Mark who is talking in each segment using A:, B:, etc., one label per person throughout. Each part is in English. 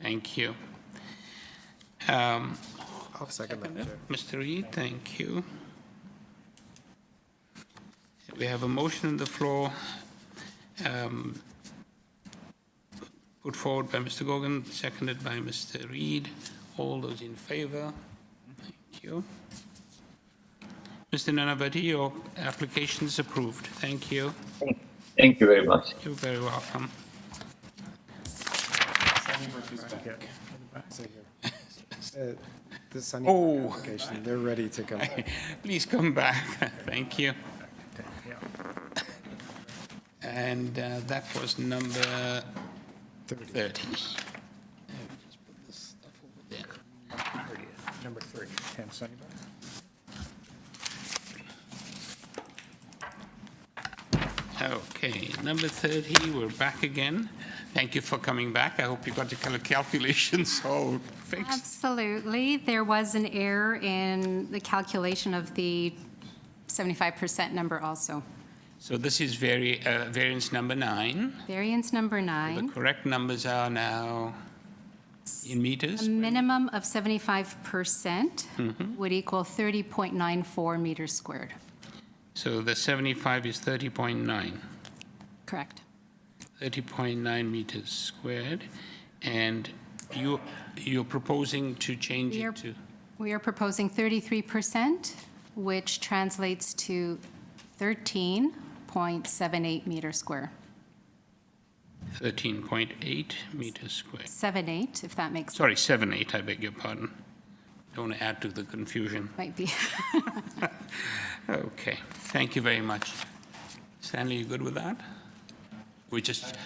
A: Thank you. Um,
B: I'll second that, Chair.
A: Mr. Reed, thank you. We have a motion on the floor um, put forward by Mr. Gogan, seconded by Mr. Reed. All those in favor? Thank you. Mr. Nanavati, your application is approved. Thank you.
C: Thank you very much.
A: You're very welcome.
B: Uh, The Sunny
A: Oh.
B: Park application, they're ready to come. back.
A: Please come back. Thank you. And uh, that was number 30.
D: Number 30, 10 Sunnybrook.
A: Okay, number 30, we're back again. Thank you for coming back. I hope you got your cal- calculations all fixed.
E: Absolutely. There was an error in the calculation of the 75% number also.
A: So this is vari- uh, variance number nine.
E: Variance number
A: The
E: nine,
A: correct numbers are now in
E: a
A: meters?
E: minimum of 75% would equal 30.94 meters squared.
A: So the 75 is 30.9.
E: Correct.
A: 30.9 meters squared, and you, you're proposing to change
E: We are-
A: it to,
E: We are proposing 33%, which translates to 13.78 meters square.
A: 13.8 meters squared.
E: 78, if that makes,
A: Sorry, 7.8, I beg your pardon. Don't want to add to the confusion.
E: might be.
A: Okay, thank you very much. Stanley, you good with that? We just,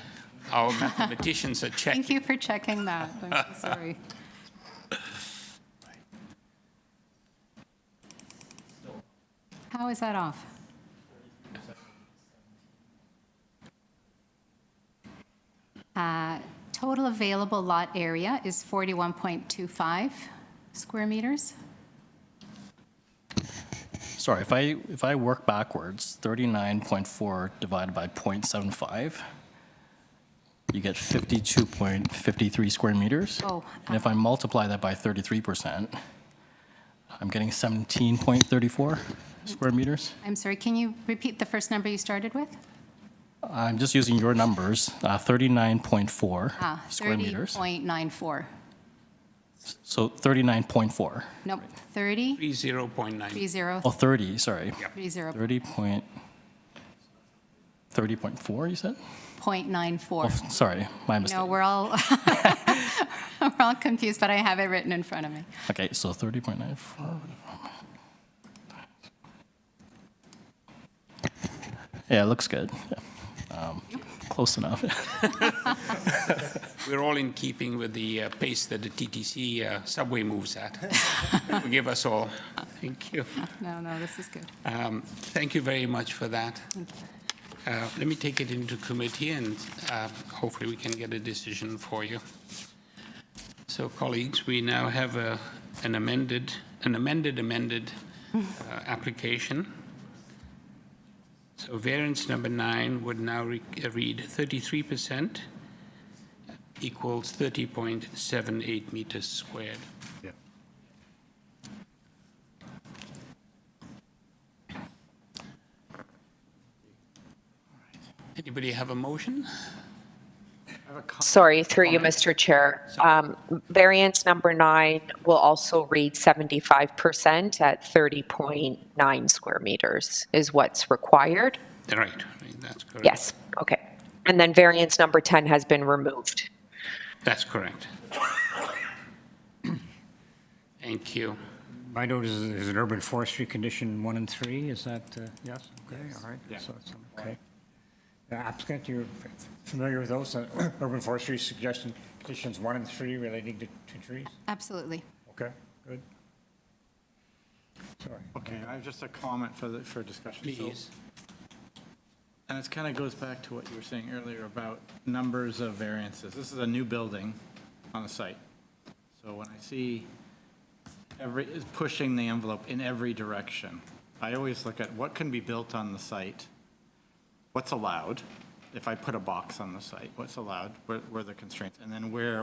A: our mathematicians are checking.
E: Thank you for checking that. I'm so sorry. How is that off? Uh, Total available lot area is 41.25 square meters.
F: Sorry, if I, if I work backwards, 39.4 divided by .75, you get 52.53 square meters.
E: Oh,
F: And if I multiply that by 33%, I'm getting 17.34 square meters.
E: I'm sorry, can you repeat the first number you started with?
F: I'm just using your numbers, uh, 39.4
E: Ah,
F: square meters.
E: 30.94.
F: So 39.4,
E: Nope, 30,
A: 30.9.
E: 30,
F: oh, 30, sorry.
E: 30.94.
F: 30 point, 30.4, you said? Oh, sorry, my mistake.
E: No, we're all, we're all confused, but I have it written in front of me.
F: Okay, so thirty point nine four. Yeah, it looks good. Yeah. Um, Close enough.
A: We're all in keeping with the uh, pace that the TTC uh, subway moves at. Forgive us all. Thank you.
E: No, no, this is good.
A: Um, Thank you very much for that. Uh, Let me take it into committee, and uh, hopefully we can get a decision for you. So colleagues, we now have a- an amended, an amended amended uh, application. So variance number nine would now re- uh, read 33% equals 30.78 meters squared. Anybody have a motion?
G: Sorry, through you, Mr. Chair. Um, Variance number nine will also read 75% at 30.9 square meters is what's required.
A: Right, right, that's correct.
G: Yes, okay. And then variance number 10 has been removed.
A: That's correct. Thank you.
D: My note is, is an urban forestry condition one and three, is that, uh, yes? Okay, all right. So it's, um, Okay. The Applicant, you're f- familiar with those, uh, urban forestry suggestion conditions one and three relating to to trees?
E: Absolutely.
D: Okay, good. Sorry.
H: Okay, I have just a comment for the, for discussion. So-
A: Please.
H: And this kind of goes back to what you were saying earlier about numbers of variances. This is a new building on the site. So when I see every, is pushing the envelope in every direction, I always look at what can be built on the site, what's allowed, if I put a box on the site, what's allowed, where where are the constraints, and then where